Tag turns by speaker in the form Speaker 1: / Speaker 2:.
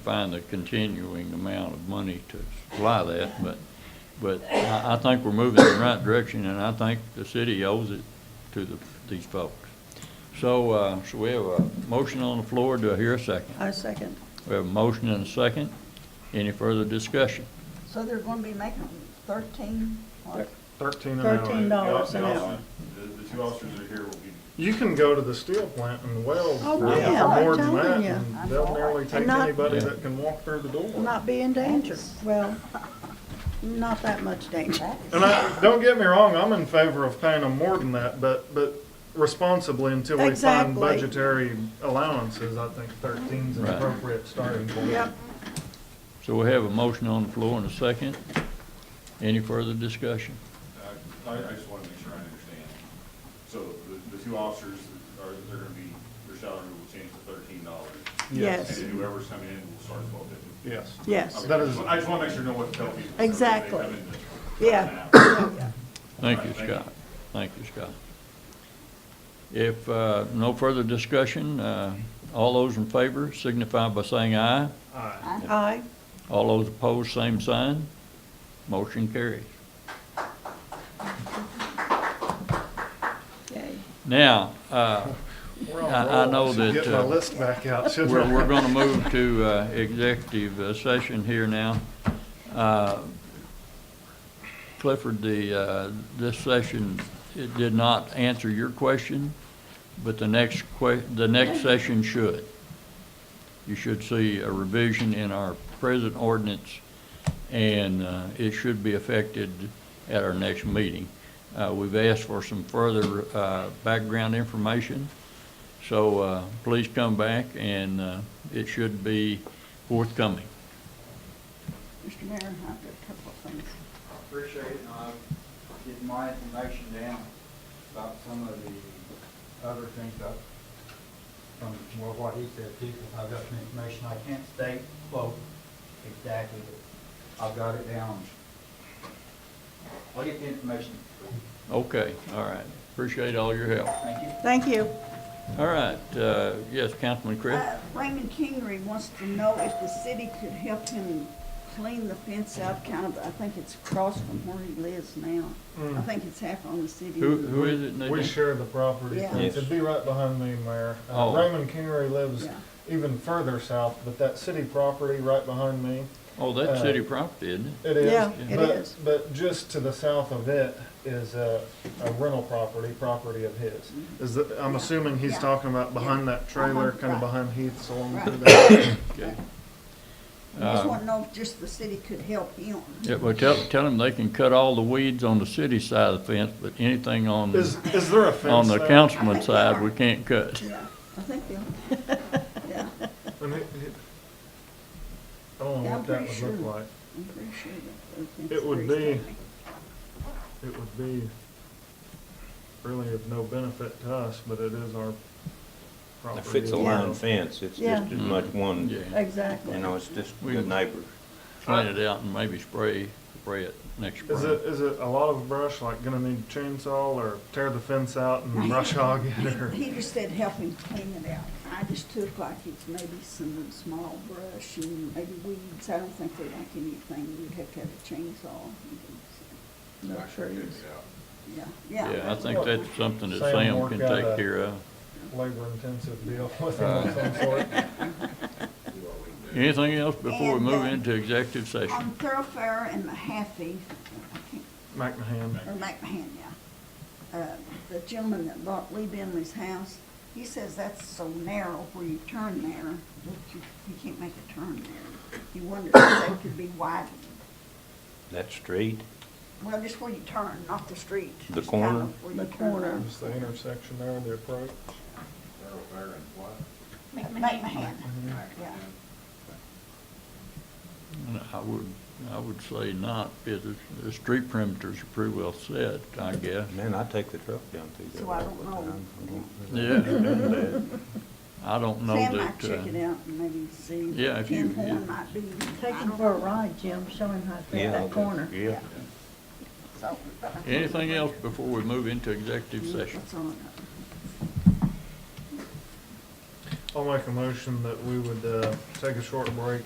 Speaker 1: find a continuing amount of money to supply that, but, but I, I think we're moving in the right direction, and I think the city owes it to the, these folks. So, uh, so we have a motion on the floor, do I hear a second?
Speaker 2: I second.
Speaker 1: We have a motion and a second, any further discussion?
Speaker 2: So they're gonna be making thirteen? or-
Speaker 3: Thirteen an hour.
Speaker 2: $13 an
Speaker 3: The- the
Speaker 2: hour.
Speaker 3: officer- The two officers that are here will be. You can go to the steel plant and weld
Speaker 4: Oh,
Speaker 3: for
Speaker 4: yeah, I'm
Speaker 3: more than that,
Speaker 4: telling you.
Speaker 3: and they'll nearly take
Speaker 4: not-
Speaker 3: anybody
Speaker 1: Yeah.
Speaker 3: that can walk through the door.
Speaker 4: Not be in danger. Well, not that much danger.
Speaker 2: That is-
Speaker 3: And I, don't get me wrong, I'm in favor of paying them more than that, but, but responsibly until we find
Speaker 4: Exactly.
Speaker 3: budgetary allowances, I think thirteen's an
Speaker 1: Right.
Speaker 3: appropriate starting point.
Speaker 4: Yep.
Speaker 1: So we have a motion on the floor and a second, any further discussion?
Speaker 5: I, I just want to make sure I understand. So the, the two officers are, they're gonna be, their salary will change to thirteen dollars.
Speaker 4: Yes,
Speaker 5: And whoever's coming in will start at twelve fifty.
Speaker 3: Yes.
Speaker 4: yes.
Speaker 3: That is-
Speaker 5: I just want to make sure I know what to tell people. so
Speaker 4: Exactly.
Speaker 5: when they come in to-
Speaker 4: Yeah.
Speaker 1: Thank you, Scott. Thank you, Scott. If uh, no further discussion, uh, all those in favor signify by saying aye.
Speaker 3: Aye.
Speaker 2: I-
Speaker 4: Aye.
Speaker 1: All those opposed, same sign. Motion carries.
Speaker 2: okay.
Speaker 1: Now, uh,
Speaker 3: We're on
Speaker 1: I- I
Speaker 3: roll.
Speaker 1: know
Speaker 3: Should
Speaker 1: that,
Speaker 3: Get my
Speaker 1: uh,
Speaker 3: list back out, shouldn't
Speaker 1: we're,
Speaker 3: I?
Speaker 1: we're going to move to uh, executive uh, session here now. Uh, Clifford, the, uh, this session, it did not answer your question, but the next que, the next session should. You should see a revision in our present ordinance, and uh, it should be affected at our next meeting. Uh, We've asked for some further uh, background information, so uh, please come back, and uh, it should be forthcoming.
Speaker 2: Mr. Mayor, I've got a couple of things.
Speaker 6: appreciate it, and I'll get my information down about some of the other things up from, well, what he said too, 'cause I've got some information, I can't state quote exactly, but I've got it down. I'll get the information,
Speaker 1: Okay, all right. Appreciate all your help.
Speaker 6: thank you.
Speaker 4: Thank you.
Speaker 1: All right, uh, yes, Councilman Chris?
Speaker 2: Uh, Raymond Kingery wants to know if the city could help him clean the fence out, kind of, I think it's across from where he lives now. I
Speaker 3: Mm.
Speaker 2: think it's half on the city.
Speaker 1: Who, who is it, Nadine?
Speaker 3: We share the property.
Speaker 2: Yeah.
Speaker 1: Yes.
Speaker 3: It'd be right behind me, Mayor. Uh,
Speaker 1: Oh.
Speaker 3: Raymond Kingery lives
Speaker 2: Yeah.
Speaker 3: even further south, but that city property right behind me,
Speaker 1: Oh, that's
Speaker 3: uh,
Speaker 1: city property, isn't it?
Speaker 3: it is.
Speaker 4: Yeah, it
Speaker 3: but-
Speaker 4: is.
Speaker 3: But just to the south of it is a, a rental property, property of his. Is that, I'm assuming he's
Speaker 2: Mm-hmm. Yeah.
Speaker 3: talking about behind that trailer,
Speaker 2: Uh-huh,
Speaker 3: kind of
Speaker 2: right.
Speaker 3: behind Heath's along through
Speaker 2: Right.
Speaker 3: there.
Speaker 1: Okay.
Speaker 2: I Just
Speaker 1: Uh,
Speaker 2: want to know if just the city could help him.
Speaker 1: Yeah, well, tell, tell them they can cut all the weeds on the city side of the fence, but anything on,
Speaker 3: Is, is there a
Speaker 1: on
Speaker 3: fence
Speaker 1: the
Speaker 3: there?
Speaker 1: councilman's side, we can't cut.
Speaker 2: Yeah, I think they'll, yeah,
Speaker 3: And it- it- I don't know
Speaker 2: Yeah, I'm
Speaker 3: what that
Speaker 2: pretty
Speaker 3: would
Speaker 2: sure.
Speaker 3: look like.
Speaker 2: I'm pretty sure that. the
Speaker 3: It would
Speaker 2: fence is
Speaker 3: be-
Speaker 2: coming.
Speaker 3: It would be really of no benefit to us, but it is our property.
Speaker 7: If it's a
Speaker 4: Yeah.
Speaker 7: line fence, it's
Speaker 4: Yeah.
Speaker 7: just as much one,
Speaker 1: Yeah,
Speaker 7: you
Speaker 4: Exactly.
Speaker 7: know, it's just
Speaker 1: We-
Speaker 7: good neighbors.
Speaker 1: clean it out and maybe spray, spray it next
Speaker 3: Is
Speaker 1: spring.
Speaker 3: it, is it a lot of brush, like gonna need chainsaw or tear the fence out and brush hog it or?
Speaker 2: He just said help him clean it out. I just took like it's maybe some small brush and maybe weeds. I don't think they're like anything. You'd have to have a chainsaw.
Speaker 4: No trees.
Speaker 2: Yeah, yeah.
Speaker 1: Yeah, I think that's something that
Speaker 3: Sam
Speaker 1: Sam
Speaker 3: work
Speaker 1: can
Speaker 3: out
Speaker 1: take
Speaker 3: a-
Speaker 1: care of.
Speaker 3: Labor intensive deal with it of some sort.
Speaker 1: Anything else before we
Speaker 2: And,
Speaker 1: move
Speaker 2: uh,
Speaker 1: into executive
Speaker 2: On
Speaker 1: session?
Speaker 2: thoroughfare and Mahaffey, I can't
Speaker 3: McMahon.
Speaker 2: or McMahon, yeah. Uh, The gentleman that bought Lee Bentley's house, he says that's so narrow where you turn there, that you, you can't make a turn there. He wonders if they could be widened.
Speaker 7: That street,
Speaker 2: Well, just where you turn, not the street.
Speaker 7: The
Speaker 2: just
Speaker 7: corner?
Speaker 2: kind of where you
Speaker 4: The
Speaker 2: turn.
Speaker 4: corner.
Speaker 3: Just the intersection there, the approach.
Speaker 2: McMahon, yeah.
Speaker 1: I would, I would say not, because the- the street perimeters are pretty well set, I guess.
Speaker 7: man, I take the truck down through there.
Speaker 2: So I
Speaker 7: all
Speaker 2: don't
Speaker 7: the
Speaker 2: know.
Speaker 7: time. I don't- I
Speaker 1: Yeah.
Speaker 7: don't do that.
Speaker 1: I don't know
Speaker 2: Sam might
Speaker 1: that,
Speaker 2: check it
Speaker 1: uh,
Speaker 2: out and maybe see.
Speaker 1: Yeah, if you-
Speaker 2: Ken Horn might be.
Speaker 4: Take him for a ride, Jim. Show him how to
Speaker 7: Yeah,
Speaker 4: fit that
Speaker 7: I'll do-
Speaker 4: corner.
Speaker 7: Yeah.
Speaker 2: So, but I-
Speaker 1: anything else before we move into executive session?
Speaker 2: That's all I got.
Speaker 3: I'll make a motion that we would, uh, take a short break